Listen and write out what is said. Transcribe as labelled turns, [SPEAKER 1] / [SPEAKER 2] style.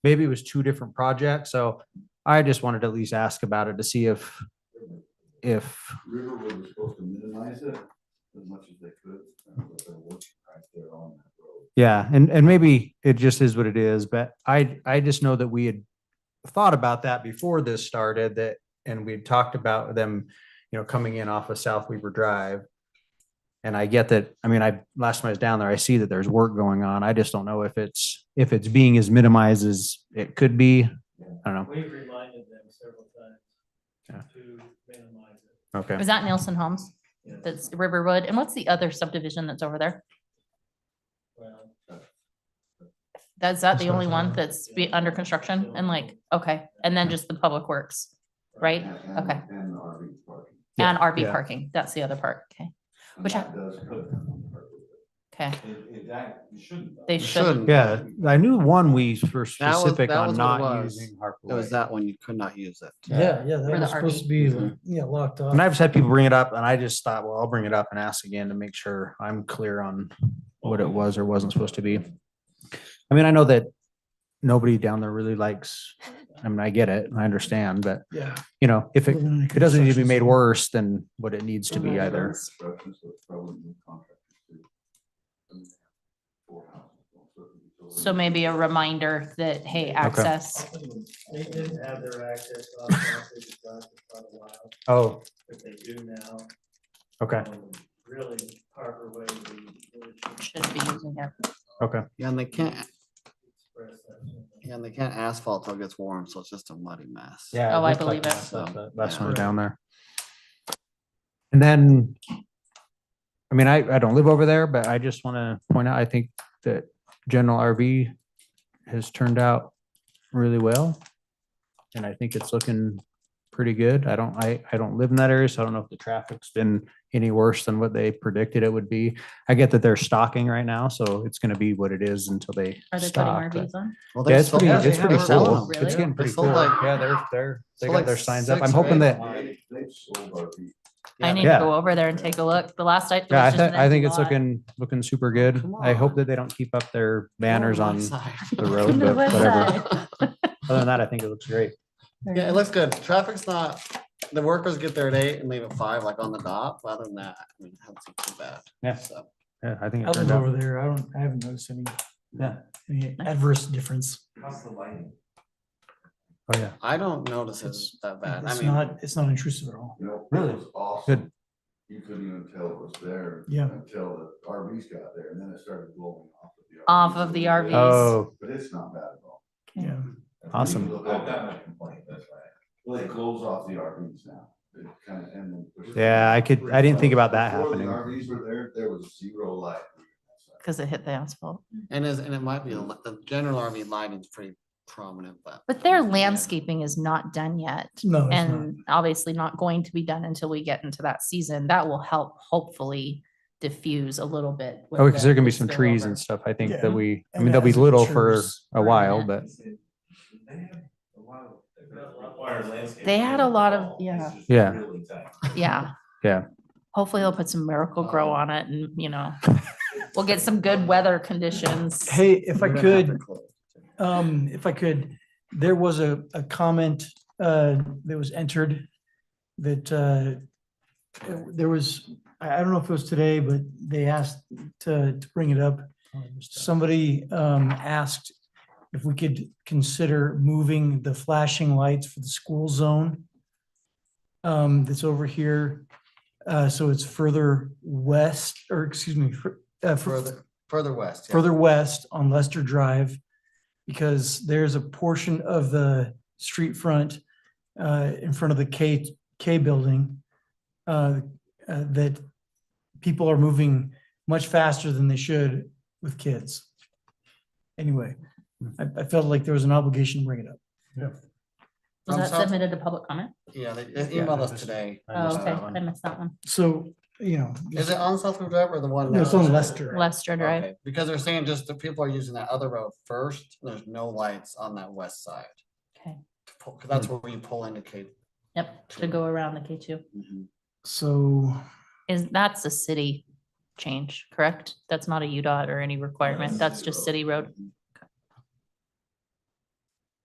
[SPEAKER 1] maybe it was two different projects, so I just wanted to at least ask about it to see if, if,
[SPEAKER 2] Riverwood was supposed to minimize it as much as they could, uh, but they're working right there on that road.
[SPEAKER 1] yeah, and, and maybe it just is what it is, but I, I just know that we had thought about that before this started, that, and we'd talked about them, you know, coming in off of South Weaver Drive. And I get that, I mean, I, last time I was down there, I see that there's work going on, I just don't know if it's, if it's being as minimized as it could be, I don't know,
[SPEAKER 3] We've reminded them several
[SPEAKER 1] Yeah.
[SPEAKER 3] times to minimize it.
[SPEAKER 1] okay.
[SPEAKER 4] Was that Nelson Homes?
[SPEAKER 3] Yeah.
[SPEAKER 4] That's Riverwood. And what's the other subdivision that's over there?
[SPEAKER 3] Well,
[SPEAKER 4] That's that the
[SPEAKER 1] That's
[SPEAKER 4] only
[SPEAKER 1] not
[SPEAKER 4] one
[SPEAKER 1] that.
[SPEAKER 4] that's be under construction and like, okay, and then just the public works, right?
[SPEAKER 2] And- and-
[SPEAKER 4] Okay.
[SPEAKER 2] And the RV parking.
[SPEAKER 1] Yeah,
[SPEAKER 4] And RV
[SPEAKER 1] yeah.
[SPEAKER 4] parking. That's the other part. Okay,
[SPEAKER 2] And
[SPEAKER 4] Which I-
[SPEAKER 2] that does put them on the road.
[SPEAKER 4] okay.
[SPEAKER 2] It, it, that, you shouldn't. though.
[SPEAKER 4] They shouldn't.
[SPEAKER 1] Yeah, I knew one we were
[SPEAKER 5] That was-
[SPEAKER 1] specific
[SPEAKER 5] that
[SPEAKER 1] on
[SPEAKER 5] was what it
[SPEAKER 1] not
[SPEAKER 5] was.
[SPEAKER 1] using Harper
[SPEAKER 5] It was
[SPEAKER 1] Way.
[SPEAKER 5] that one, you could not use it.
[SPEAKER 6] Yeah, yeah,
[SPEAKER 4] For
[SPEAKER 6] that
[SPEAKER 4] the
[SPEAKER 6] was supposed
[SPEAKER 4] RV.
[SPEAKER 6] to be, the- yeah, locked off.
[SPEAKER 1] And I've just had people bring it up and I just thought, well, I'll bring it up and ask again to make sure I'm clear on what it was or wasn't supposed to be. I mean, I know that nobody down there really likes, I mean, I get it, I understand, but
[SPEAKER 6] Yeah.
[SPEAKER 1] you know, if it,
[SPEAKER 6] Living in a
[SPEAKER 1] it doesn't need to be
[SPEAKER 6] construction
[SPEAKER 1] made
[SPEAKER 6] zone.
[SPEAKER 1] worse than what it needs to be
[SPEAKER 2] Under
[SPEAKER 1] either.
[SPEAKER 2] construction, so it's probably new contractors too. And they have Four houses. so it's certainly totally-
[SPEAKER 4] So maybe a reminder that, hey, access.
[SPEAKER 3] They didn't have their access locked off, they just locked it for a while,
[SPEAKER 1] Oh,
[SPEAKER 3] but they do now.
[SPEAKER 1] okay,
[SPEAKER 3] Um, Really, Harper Way, we really should
[SPEAKER 4] Should be using it.
[SPEAKER 1] okay.
[SPEAKER 5] Yeah, and they can't,
[SPEAKER 3] express that.
[SPEAKER 5] yeah, and they can't asphalt till it gets warm, so it's just a muddy mess.
[SPEAKER 1] Yeah.
[SPEAKER 4] Oh, I believe it.
[SPEAKER 1] Last one
[SPEAKER 5] Yeah.
[SPEAKER 1] down there. And then, I mean, I, I don't live over there, but I just want to point out, I think that General RV has turned out really well. And I think it's looking pretty good. I don't, I, I don't live in that area, so I don't know if the traffic's been any worse than what they predicted it would be. I get that they're stocking right now, so it's going to be what it is until they
[SPEAKER 4] Are they putting
[SPEAKER 1] stock. but-
[SPEAKER 4] RVs on?
[SPEAKER 5] Well,
[SPEAKER 1] Yeah,
[SPEAKER 5] they're
[SPEAKER 1] it's
[SPEAKER 5] sold-
[SPEAKER 1] pretty,
[SPEAKER 5] yeah,
[SPEAKER 1] it's
[SPEAKER 5] they
[SPEAKER 1] pretty
[SPEAKER 5] were selling
[SPEAKER 1] cool.
[SPEAKER 5] them.
[SPEAKER 1] It's
[SPEAKER 4] Really?
[SPEAKER 1] getting pretty
[SPEAKER 5] sold
[SPEAKER 1] cool.
[SPEAKER 5] like-
[SPEAKER 1] Yeah, they're, they're, they
[SPEAKER 5] sold
[SPEAKER 1] got
[SPEAKER 5] like
[SPEAKER 1] their signs up.
[SPEAKER 5] six
[SPEAKER 1] I'm
[SPEAKER 5] or
[SPEAKER 1] hoping
[SPEAKER 5] eight.
[SPEAKER 1] that
[SPEAKER 2] They- They've sold RV.
[SPEAKER 4] I
[SPEAKER 5] Yeah.
[SPEAKER 4] need to
[SPEAKER 1] Yeah.
[SPEAKER 4] go over there and take a look. The last I. it was
[SPEAKER 1] Yeah, I,
[SPEAKER 4] just
[SPEAKER 1] thi-
[SPEAKER 4] an
[SPEAKER 1] I think
[SPEAKER 4] empty
[SPEAKER 1] it's
[SPEAKER 4] lot.
[SPEAKER 1] looking, looking super good.
[SPEAKER 5] come
[SPEAKER 1] I hope
[SPEAKER 5] on.
[SPEAKER 1] that they don't keep up their banners
[SPEAKER 5] Oh,
[SPEAKER 1] on
[SPEAKER 5] west
[SPEAKER 1] the
[SPEAKER 5] side.
[SPEAKER 1] road,
[SPEAKER 4] To the
[SPEAKER 1] but
[SPEAKER 4] west
[SPEAKER 1] whatever.
[SPEAKER 4] side.
[SPEAKER 1] Other than that, I think it looks great.
[SPEAKER 5] Yeah, it looks good. Traffic's not, the workers get there at eight and leave at five, like on the dot. but Other than that, I mean, it hasn't seemed too bad.
[SPEAKER 1] Yeah.
[SPEAKER 5] So,
[SPEAKER 1] Yeah, I think it
[SPEAKER 6] I've
[SPEAKER 1] turned
[SPEAKER 6] been
[SPEAKER 1] out.
[SPEAKER 6] over there. I don't, I haven't noticed any,
[SPEAKER 1] Yeah.
[SPEAKER 6] any adverse difference.
[SPEAKER 2] How's the lighting?
[SPEAKER 1] Oh, yeah.
[SPEAKER 5] I don't notice
[SPEAKER 6] It's-
[SPEAKER 5] it's that bad. I
[SPEAKER 6] It's
[SPEAKER 5] mean,
[SPEAKER 6] not, it's not intrusive at all.
[SPEAKER 2] You know,
[SPEAKER 1] Really?
[SPEAKER 2] it was awesome.
[SPEAKER 1] Good.
[SPEAKER 2] You couldn't even tell it was there.
[SPEAKER 6] Yeah.
[SPEAKER 2] Until the RVs got there and then it started blowing off of the. RVs
[SPEAKER 4] Off
[SPEAKER 2] a
[SPEAKER 4] of the
[SPEAKER 2] little bit.
[SPEAKER 4] RVs.
[SPEAKER 1] Oh,
[SPEAKER 2] But it's not bad at all.
[SPEAKER 6] Yeah.
[SPEAKER 1] Awesome.
[SPEAKER 2] I've got a complaint, that's right. Well, they close off the RVs now. It kind of, and then.
[SPEAKER 1] yeah, I could, I didn't think about that
[SPEAKER 2] Before the
[SPEAKER 1] happening.
[SPEAKER 2] RVs were there, there was zero light.
[SPEAKER 4] Cause it hit the asphalt.
[SPEAKER 5] and is, and it might be, a li- the general RV lighting's pretty prominent, but.
[SPEAKER 4] But their
[SPEAKER 5] Yeah.
[SPEAKER 4] landscaping is not done yet.
[SPEAKER 6] No, it's not.
[SPEAKER 4] And obviously not going to be done until we get into that season. That will help hopefully diffuse a little bit. with
[SPEAKER 1] Oh, because
[SPEAKER 4] the-
[SPEAKER 1] there can be
[SPEAKER 4] the
[SPEAKER 1] some trees
[SPEAKER 4] spillover.
[SPEAKER 1] and stuff. I think
[SPEAKER 6] Yeah.
[SPEAKER 1] that we, I
[SPEAKER 6] And
[SPEAKER 1] mean, they'll be
[SPEAKER 6] as it
[SPEAKER 1] little for
[SPEAKER 6] matures,
[SPEAKER 1] a while, but
[SPEAKER 4] They had a lot of- yeah.
[SPEAKER 1] Yeah.
[SPEAKER 4] Yeah.
[SPEAKER 1] Yeah. Oh.
[SPEAKER 4] Hopefully they'll put some miracle grow on it and, you know, we'll get some good weather conditions.
[SPEAKER 6] Hey, if I
[SPEAKER 5] We're gonna have
[SPEAKER 6] could,
[SPEAKER 5] to close.
[SPEAKER 6] um, if I could, there was a, a comment, uh, that was entered that, uh, there was, I, I don't know if it was today, but they asked to, to bring it up. Somebody, um, asked if we could consider moving the flashing lights for the school zone um, that's over here. Uh, so it's further west, or excuse me, fur- uh, fur-
[SPEAKER 5] Further, further west. yeah.
[SPEAKER 6] further west on Lester Drive because there's a portion of the street front uh, in front of the K, K building uh, uh, that people are moving much faster than they should with kids. Anyway, I, I felt like there was an obligation to bring it up.
[SPEAKER 4] Was
[SPEAKER 5] Um,
[SPEAKER 4] that
[SPEAKER 5] so-
[SPEAKER 4] submitted to public comment?
[SPEAKER 5] Yeah, they they emailed us today.
[SPEAKER 1] I
[SPEAKER 4] Oh,
[SPEAKER 1] missed
[SPEAKER 4] okay.
[SPEAKER 1] that
[SPEAKER 4] I
[SPEAKER 1] one.
[SPEAKER 4] missed that one.
[SPEAKER 6] So, you know,
[SPEAKER 5] Is it on Southwood Drive or the one?
[SPEAKER 6] no, it's
[SPEAKER 5] down?
[SPEAKER 6] on Lester.
[SPEAKER 4] Lester Drive.
[SPEAKER 5] Okay, Because they're saying just the people are using that other road first, there's no lights on that west side.
[SPEAKER 4] Okay.
[SPEAKER 5] To pull- 'cause That's where we pull indicate.
[SPEAKER 4] Yep. To go around the K two.
[SPEAKER 6] So
[SPEAKER 4] Is, that's a city change, correct? That's not a UDOT or any requirement. That's just city road.